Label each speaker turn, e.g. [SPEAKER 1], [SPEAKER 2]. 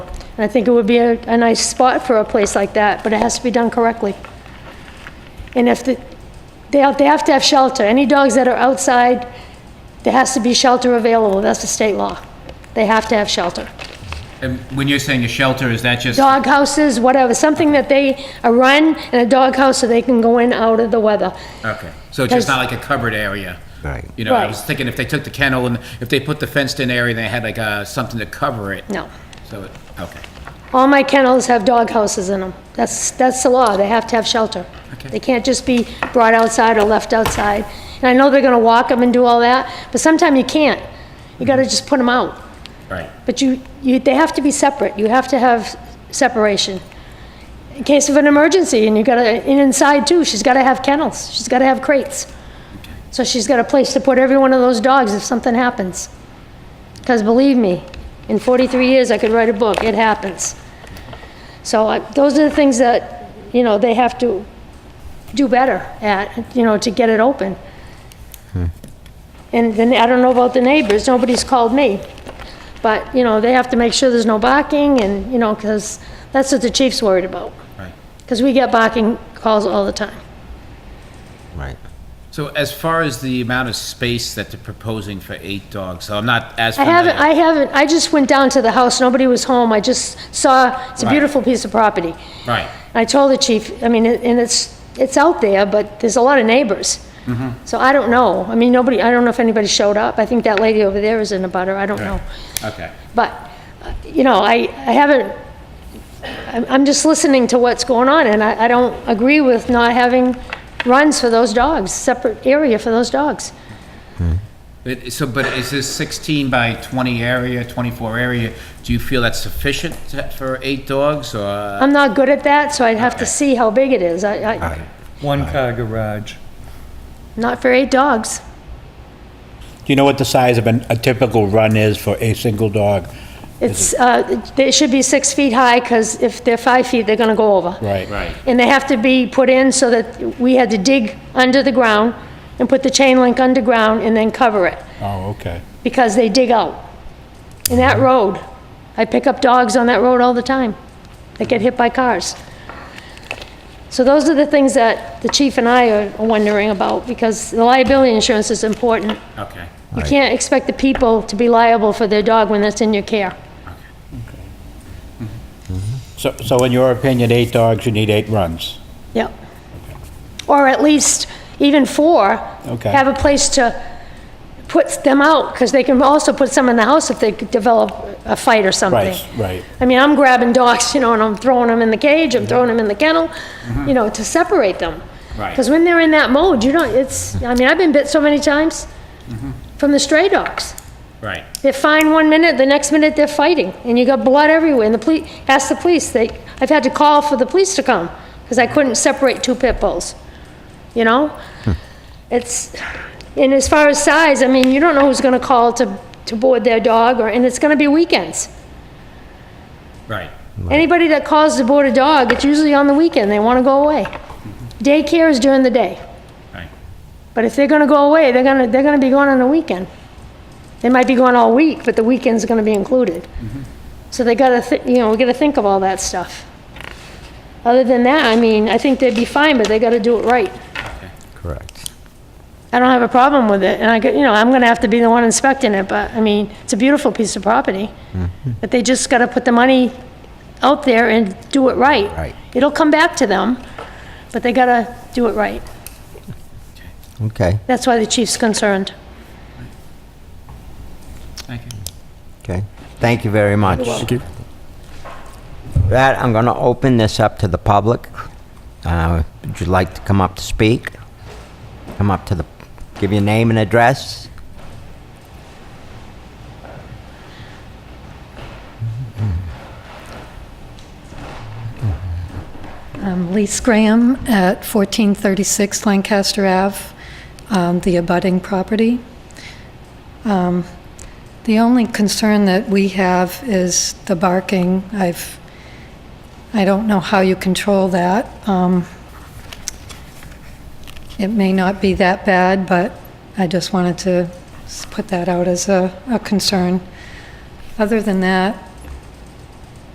[SPEAKER 1] I think it would be a, a nice spot for a place like that, but it has to be done correctly. And if the, they have, they have to have shelter. Any dogs that are outside, there has to be shelter available. That's the state law. They have to have shelter.
[SPEAKER 2] And when you're saying a shelter, is that just,
[SPEAKER 1] Dog houses, whatever, something that they, a run and a dog house so they can go in out of the weather.
[SPEAKER 2] okay, so it's just not like a covered area?
[SPEAKER 3] Right.
[SPEAKER 2] You know, I
[SPEAKER 1] Right.
[SPEAKER 2] was thinking if they took the kennel and if they put the fenced-in area, they had like uh, something to cover it.
[SPEAKER 1] No.
[SPEAKER 2] So, it- okay.
[SPEAKER 1] All my kennels have dog houses in them. That's, that's the law. They have to have shelter.
[SPEAKER 2] Okay.
[SPEAKER 1] They can't just be brought outside or left outside. And I know they're gonna walk them and do all that, but sometime you can't. You gotta just put them out.
[SPEAKER 2] Right.
[SPEAKER 1] But you, you, they have to be separate. You have to have separation. In case of an emergency, and you gotta, and inside too, she's gotta have kennels. She's gotta have crates. So she's got a place to put every one of those dogs if something happens. Because believe me, in 43 years, I could write a book. It happens. So I- those are the things that, you know, they have to do better at, you know, to get it open. And then, I don't know about the neighbors, nobody's called me. But, you know, they have to make sure there's no barking and, you know, because that's what the chief's worried about.
[SPEAKER 2] Right.
[SPEAKER 1] Because we get barking calls all the time.
[SPEAKER 3] Right.
[SPEAKER 2] So as far as the amount of space that they're proposing for eight dogs, so I'm not as
[SPEAKER 1] I
[SPEAKER 2] familiar.
[SPEAKER 1] haven't, I haven't, I just went down to the house, nobody was home, I just saw, it's a
[SPEAKER 2] Right.
[SPEAKER 1] beautiful piece of property.
[SPEAKER 2] Right,
[SPEAKER 1] I told the chief, I mean, it- and it's, it's out there, but there's a lot of neighbors. So I don't know, I mean, nobody, I don't know if anybody showed up, I think that lady over there is in a butter, I don't know.
[SPEAKER 2] okay.
[SPEAKER 1] But, uh, you know, I, I haven't, I'm, I'm just listening to what's going on, and I, I don't agree with not having runs for those dogs, separate area for those dogs.
[SPEAKER 2] But- So, but is this 16 by 20 area, 24 area, do you feel that's sufficient to- for eight dogs, or?
[SPEAKER 1] I'm not good at that, so I'd have to see how big it is. I, I,
[SPEAKER 3] Right.
[SPEAKER 4] One car garage.
[SPEAKER 1] not for eight dogs.
[SPEAKER 5] Do you know what the size of an, a typical run is for a single dog?
[SPEAKER 1] It's, uh, they should be six feet high, because if they're five feet, they're gonna go over.
[SPEAKER 5] Right.
[SPEAKER 2] Right,
[SPEAKER 1] And they have to be put in so that we had to dig under the ground and put the chain link underground and then cover it.
[SPEAKER 5] Oh, okay.
[SPEAKER 1] because they dig out. In that road, I pick up dogs on that road all the time. They get hit by cars. So those are the things that the chief and I are wondering about, because the liability insurance is important.
[SPEAKER 2] okay.
[SPEAKER 1] You can't expect the people to be liable for their dog when that's in your care.
[SPEAKER 5] So, so in your opinion, eight dogs, you need eight runs?
[SPEAKER 1] Yep. Or at least even four.
[SPEAKER 5] Okay.
[SPEAKER 1] Have a place to put them out, because they can also put some in the house if they develop a fight or something.
[SPEAKER 5] Right, right.
[SPEAKER 1] I mean, I'm grabbing dogs, you know, and I'm throwing them in the cage, I'm throwing them in the kennel, you know, to separate them.
[SPEAKER 2] Right.
[SPEAKER 1] Because when they're in that mode, you don't, it's, I mean, I've been bit so many times from the stray dogs.
[SPEAKER 2] Right,
[SPEAKER 1] They're fine one minute, the next minute they're fighting, and you got blood everywhere, and the police, ask the police, they, I've had to call for the police to come, because I couldn't separate two pit bulls, you know? It's, and as far as size, I mean, you don't know who's gonna call to, to board their dog, or, and it's gonna be weekends.
[SPEAKER 2] right,
[SPEAKER 1] Anybody that calls to board a dog, it's usually on the weekend, they wanna go away. Daycare is during the day,
[SPEAKER 2] right.
[SPEAKER 1] but if they're gonna go away, they're gonna, they're gonna be going on the weekend. They might be going all week, but the weekend's gonna be included. So they gotta, thi- you know, we gotta think of all that stuff. Other than that, I mean, I think they'd be fine, but they gotta do it right.
[SPEAKER 3] Correct.
[SPEAKER 1] I don't have a problem with it, and I, could- you know, I'm gonna have to be the one inspecting it, but, I mean, it's a beautiful piece of property. But they just gotta put the money out there and do it right.
[SPEAKER 3] Right.
[SPEAKER 1] It'll come back to them, but they gotta do it right.
[SPEAKER 3] Okay.
[SPEAKER 1] That's why the chief's concerned.
[SPEAKER 2] Thank you.
[SPEAKER 3] Okay. Thank you very much. Thank you. That I'm going to open this up to the public. Uh, would you like to come up to speak? Come up to the. Give your name and address.
[SPEAKER 6] I'm Lise Graham Um, at 1436 Lancaster Ave, um, the abutting property. Um, The only concern that we have is the barking. I've, I don't know how you control that. Um, It may not be that bad, but I just wanted to s- put that out as a a concern. Other than that,